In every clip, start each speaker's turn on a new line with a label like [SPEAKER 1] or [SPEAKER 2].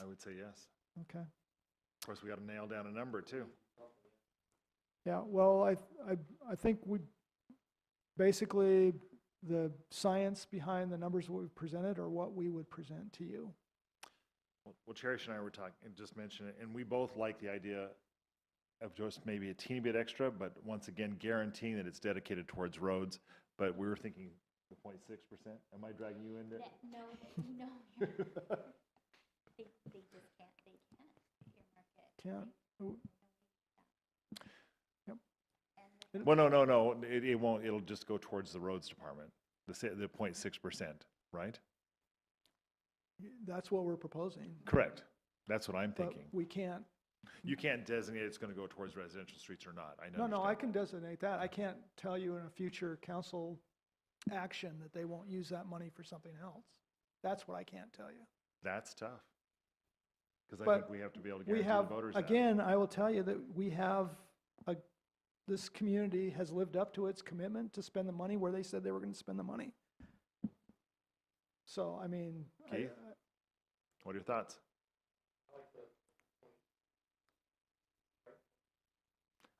[SPEAKER 1] I would say yes.
[SPEAKER 2] Okay.
[SPEAKER 1] Of course, we got to nail down a number too.
[SPEAKER 2] Yeah, well, I, I, I think we, basically, the science behind the numbers what we've presented are what we would present to you.
[SPEAKER 1] Well- Well, Cherish and I were talking, and just mentioned it, and we both like the idea of just maybe a teeny bit extra, but once again, guaranteeing that it's dedicated towards roads. But we were thinking the 0.6 percent. Am I dragging you in there?
[SPEAKER 3] That- No, they- no, you're not. they, they just can't, they can't earmark it.
[SPEAKER 2] Can't, oh,
[SPEAKER 1] Well, no, no, no, it, it won't, it'll just go towards the roads department, the, sa- the 0.6 percent, right?
[SPEAKER 2] that's what we're proposing.
[SPEAKER 1] Correct. That's what I'm
[SPEAKER 2] But
[SPEAKER 1] thinking.
[SPEAKER 2] we can't,
[SPEAKER 1] You can't designate it's going to go towards residential streets or not. I know.
[SPEAKER 2] no, no, I can designate that. I can't tell you in a future council action that they won't use that money for something else. That's what I can't tell you.
[SPEAKER 1] That's tough. Because I
[SPEAKER 2] But
[SPEAKER 1] think we have to be able to
[SPEAKER 2] We
[SPEAKER 1] guarantee the
[SPEAKER 2] have,
[SPEAKER 1] voters that.
[SPEAKER 2] again, I will tell you that we have, a- this community has lived up to its commitment to spend the money where they said they were going to spend the money. So, I mean, I-
[SPEAKER 1] Keith?
[SPEAKER 2] I-
[SPEAKER 1] What are your thoughts?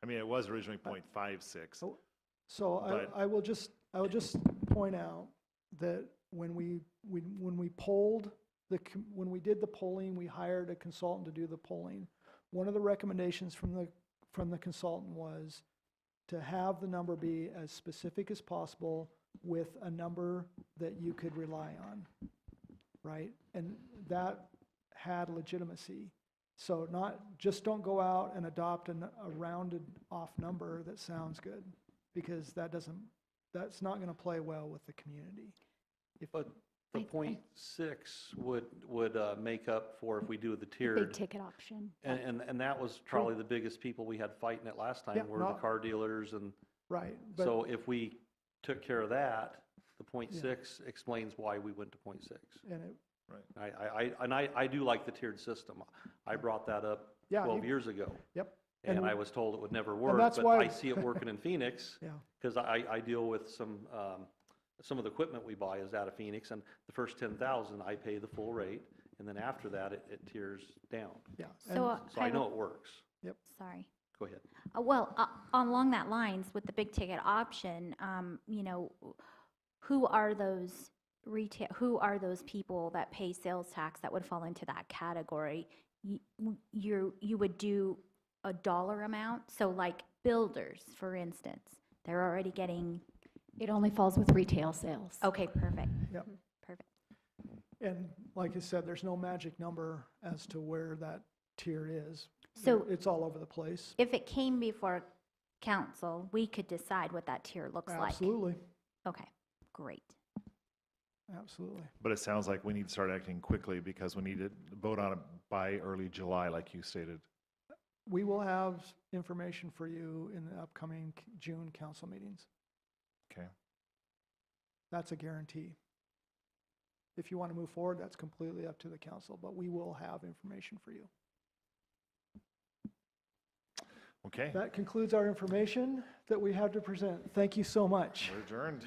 [SPEAKER 1] I mean, it was originally 0.56.
[SPEAKER 2] Oh. so
[SPEAKER 1] But-
[SPEAKER 2] I, I will just, I will just point out that when we, we- when we polled, the, com- when we did the polling, we hired a consultant to do the polling. One of the recommendations from the, from the consultant was to have the number be as specific as possible with a number that you could rely on, right? And that had legitimacy. So not, just don't go out and adopt an, a rounded off number that sounds good, because that doesn't, that's not gonna play well with the community.
[SPEAKER 4] But the
[SPEAKER 5] I- I-
[SPEAKER 4] point six would, would uh, make up for if we do the
[SPEAKER 5] Big
[SPEAKER 4] tiered.
[SPEAKER 5] ticket option.
[SPEAKER 4] And, and, and that was probably the biggest people we had fighting it last
[SPEAKER 2] Yeah,
[SPEAKER 4] time were the
[SPEAKER 2] no.
[SPEAKER 4] car dealers and,
[SPEAKER 2] Right, but,
[SPEAKER 4] so if we took care of that, the point
[SPEAKER 2] Yeah.
[SPEAKER 4] six explains why we went to point six.
[SPEAKER 2] and it,
[SPEAKER 4] I, I, I- and I, I do like the tiered system. I brought that up
[SPEAKER 2] Yeah,
[SPEAKER 4] twelve
[SPEAKER 2] you-
[SPEAKER 4] years ago.
[SPEAKER 2] yep, and
[SPEAKER 4] And I
[SPEAKER 2] we-
[SPEAKER 4] was told it would never work,
[SPEAKER 2] that's
[SPEAKER 4] but
[SPEAKER 2] why-
[SPEAKER 4] I see it working in Phoenix.
[SPEAKER 2] yeah,
[SPEAKER 4] Because I, I deal with some, um, some of the equipment we buy is out of Phoenix, and the first ten thousand, I pay the full rate, and then after that, it, it tiers down.
[SPEAKER 2] yeah.
[SPEAKER 5] So
[SPEAKER 2] and-
[SPEAKER 5] uh,
[SPEAKER 4] So I
[SPEAKER 5] would-
[SPEAKER 4] know it works.
[SPEAKER 5] Sorry.
[SPEAKER 4] Go ahead.
[SPEAKER 5] Uh, Well, uh, along that lines, with the big ticket option, um, you know, who are those retail, who are those people that pay sales tax that would fall into that category? You, you you would do a dollar amount, so like builders, for instance, they're already getting,
[SPEAKER 6] It only falls with retail sales.
[SPEAKER 5] okay, perfect. Mm-hmm.
[SPEAKER 2] Yep.
[SPEAKER 5] Perfect.
[SPEAKER 2] And like I said, there's no magic number as to where that tier is.
[SPEAKER 5] So-
[SPEAKER 2] It's all over the place.
[SPEAKER 5] If it came before council, we could decide what that tier looks like.
[SPEAKER 2] Absolutely,
[SPEAKER 5] Okay, great.
[SPEAKER 2] absolutely.
[SPEAKER 1] But it sounds like we need to start acting quickly because we need to vote on it by early July, like you stated.
[SPEAKER 2] We will have information for you in the upcoming c- June council meetings.
[SPEAKER 1] Okay.
[SPEAKER 2] That's a guarantee. If you want to move forward, that's completely up to the council, but we will have information for you.
[SPEAKER 1] Okay,
[SPEAKER 2] That concludes our information that we have to present. Thank you so much.
[SPEAKER 1] we're adjourned.